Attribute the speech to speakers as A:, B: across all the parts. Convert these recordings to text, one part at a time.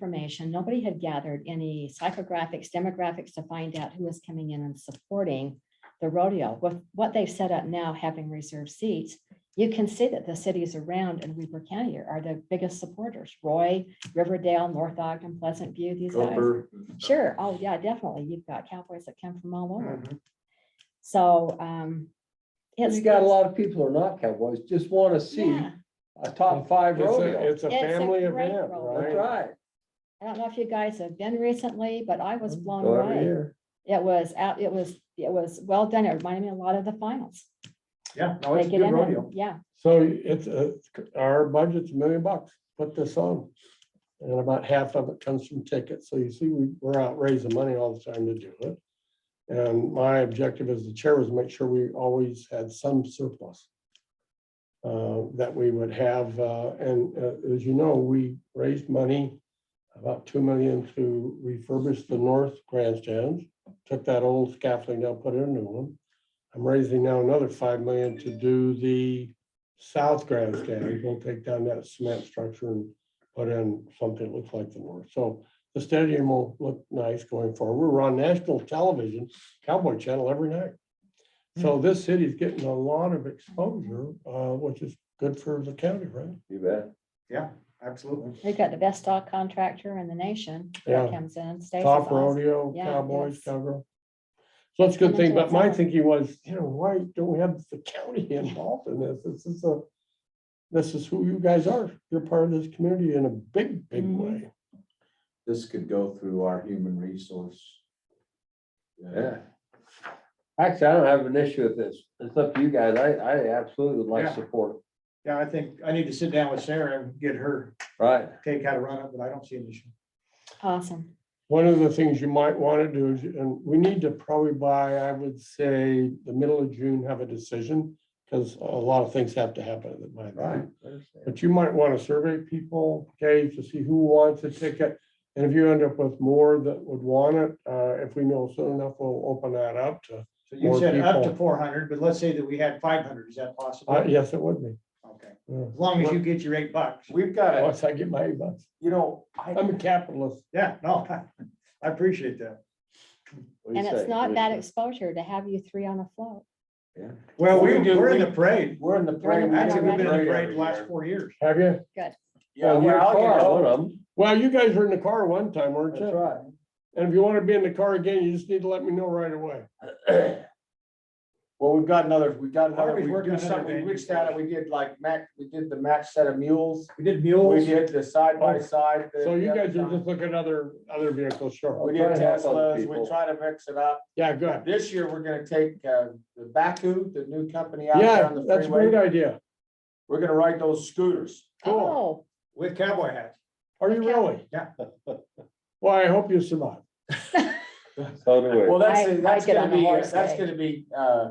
A: information. Nobody had gathered any psychographics, demographics to find out who was coming in and supporting the rodeo. With what they've set up now, having reserved seats, you can see that the cities around in Weaver County are the biggest supporters. Roy, Riverdale, North Ogden, Pleasant View, these guys.
B: Gopher.
A: Sure. Oh, yeah, definitely. You've got cowboys that come from all
C: Mm-hmm.
A: over.
B: Mhm.
A: So, um, it's.
B: You got a lot of people who are not cowboys, just want to see
A: Yeah.
B: a top five
C: It's a,
B: rodeo.
A: It's
C: it's a
A: a
C: family
A: great
C: event,
A: rodeo.
B: That's
C: right?
B: right.
A: I don't know if you guys have been recently, but I was blown
B: Go every
A: away.
B: year.
A: It was out, it was, it was well done. It reminded me a lot of the finals.
D: Yeah, no,
C: Oh,
A: They
D: it's a
A: get
D: good
A: in
D: rodeo.
A: and, yeah,
C: So it's, uh, our budget's a million bucks, put this on. And about half of it comes from tickets, so you see, we, we're out raising money all the time to do it. And my objective as the chair was make sure we always had some surplus. Uh, that we would have, uh, and, uh, as you know, we raised money. About two million to refurbish the north grandstands, took that old scaffolding down, put in a new one. I'm raising now another five million to do the south grandstand, we'll take down that cement structure and put in something that looks like the north. So the stadium will look nice going forward. We're on national television, Cowboy Channel every night. So this city's getting a lot of exposure, uh, which is good for the county, right?
B: You bet.
D: Yeah, absolutely.
A: we've got the best dog contractor in the nation that
C: Yeah.
A: comes in, stays with
C: Top
A: us.
C: rodeo,
A: Yeah,
C: cowboys,
A: yes.
C: cowgirl. So it's a good
A: And
C: thing,
A: that's
C: but my
A: awesome.
C: thinking was, you know, why don't we have the county involved in this? This is a, this is who you guys are. You're part of this community in a big, big
A: Mhm.
C: way.
E: this could go through our human resource. uh,
B: Yeah. Actually, I don't have an issue with this. It's up to you guys. I, I absolutely would like
D: Yeah.
B: support, it.
D: Yeah, I think I need to sit down with Sarah and get her
B: right?
D: take how to run it, but I don't see an issue.
A: Awesome.
C: One of the things you might want to do is, and we need to probably by, I would say, the middle of June, have a decision. Because a lot of things have to happen at my time. But you might want to survey people, okay, to see who wants a ticket. And if you end up with more that would want it, uh, if we know soon enough, we'll open that up to,
D: So you
C: More
D: said up to
C: people.
D: four hundred, but let's say that we had five hundred. Is that
C: uh,
D: possible?
C: yes, it would be.
D: Okay,
C: Yeah.
D: as long as you get your eight bucks.
E: We've got to,
C: Once I get my eight bucks.
E: you know, I,
C: I'm a capitalist.
D: Yeah, no, I appreciate that.
A: And it's not bad exposure to have you three on a float.
D: Well, we,
E: We do-
D: we're in
E: we-
D: the parade.
E: We're in the parade.
D: Actually, we've been in the
E: Parade
D: parade
E: every
D: the last
E: year.
D: four years.
C: Have you?
E: Yeah,
C: Oh,
E: well,
C: your
E: I'll get
C: car,
E: all-
B: One of them,
C: Well, you guys were in the car one time, weren't
B: that's
C: you?
B: right.
C: And if you want to be in the car again, you just need to let me know right away.
E: Well, we've got another, we got
D: Why
E: another,
D: don't we
E: we
D: work on
E: do
D: another
E: something, we
D: venue
E: reached out and we did like Mac, we did the match set of mules.
D: We did
E: We
D: mules.
E: did the side by side. the-
C: So you
E: the other
C: guys are
E: time.
C: just looking at other, other vehicles, sure.
E: We
B: Try
E: did
B: to help other
E: Teslas,
B: people.
E: we try to mix it up.
C: Yeah, good.
E: This year, we're gonna take, uh, the Baku, the new company out there
C: Yeah,
E: on the
C: that's a great
E: freeway.
C: idea.
E: We're gonna ride those scooters.
C: Cool.
A: Oh,
D: With cowboy hats.
C: Are you really?
D: Yeah.
C: Well, I hope you survive.
B: So do we.
E: Well, that's,
A: I- I
E: that's
A: get
E: gonna
A: on the
E: be,
A: horse,
E: that's
A: eh? Hmm.
E: gonna be, uh,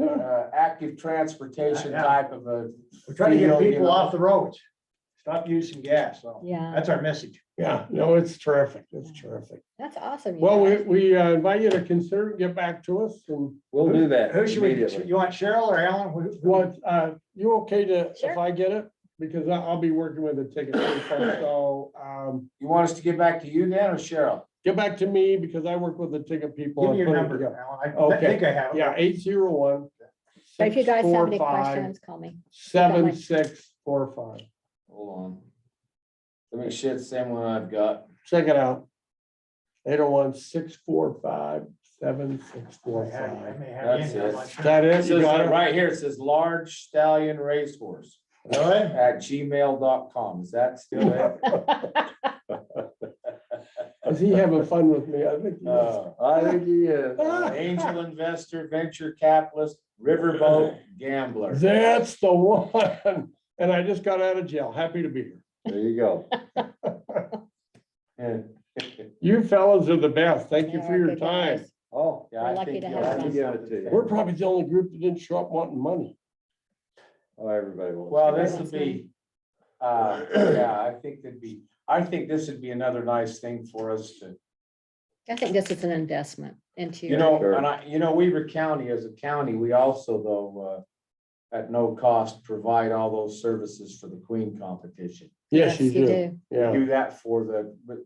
A: Mm.
E: uh, active transportation
D: Yeah.
E: type of a.
D: We're trying to get
E: field, you
D: people
E: know.
D: off the roads. Stop using gas. So
A: Oh, yeah,
D: that's our message.
C: Yeah, no, it's terrific. It's terrific.
A: that's awesome. you
C: Well, we,
A: guys.
C: we uh, invite you to consider, it, get back to us and
B: We'll do that
D: Who should we,
B: immediately.
D: you want Cheryl or Alan? Who- who-
C: what, uh, you okay to, if
A: Sure.
C: I get it? Because I- I'll be working with a ticket. person, So, um,
E: You want us to get back to you then or Cheryl?
C: get back to me because I work with the ticket people.
D: Give me
C: and
D: your
C: put it
D: number,
C: together.
D: Alan. I
C: Okay.
D: think I have. it.
C: Yeah, eight zero one.
A: But if you guys have any questions, call me.
C: Seven, six, four, five.
E: Hold on. Let me shit same one I've got.
C: Check it out. Eight oh one, six, four, five, seven, six, four,
D: I had it. I
C: five.
D: may have it in
E: That's
D: here.
E: it.
D: I'm not sure.
C: That
E: It
C: is,
E: says,
C: you got it?
E: right here, it says large stallion racehorse
D: Really?
E: at gmail.com. Is that still there?
C: Is he having fun with me? I think. he is.
E: Uh,
B: I think he is.
C: Uh,
E: Angel investor, venture capitalist, riverboat gambler.
C: That's the one. And I just got out of jail. Happy to be here.
B: There you go.
E: Yeah,
C: You fellas are the best. Thank you
A: They
C: for
A: are
C: your
A: good
C: time.
A: guys.
B: Oh,
E: Yeah, I
A: We're lucky
E: think
A: to
E: you'll
A: have
E: have to
B: them.
E: give it to you.
C: We're probably the only group that didn't show up wanting money.
B: oh, everybody wants.
E: Well,
B: to
E: this
B: know.
E: would be, uh, yeah, I think that'd be, I think this would be another nice thing for us to,
A: I think this is an investment into.
E: you know,
B: Sure.
E: and I, you know, Weaver County as a county, we also though, uh, at no cost, provide all those services for the Queen competition.
C: Yes, you do. Yeah.
E: Do that for the, but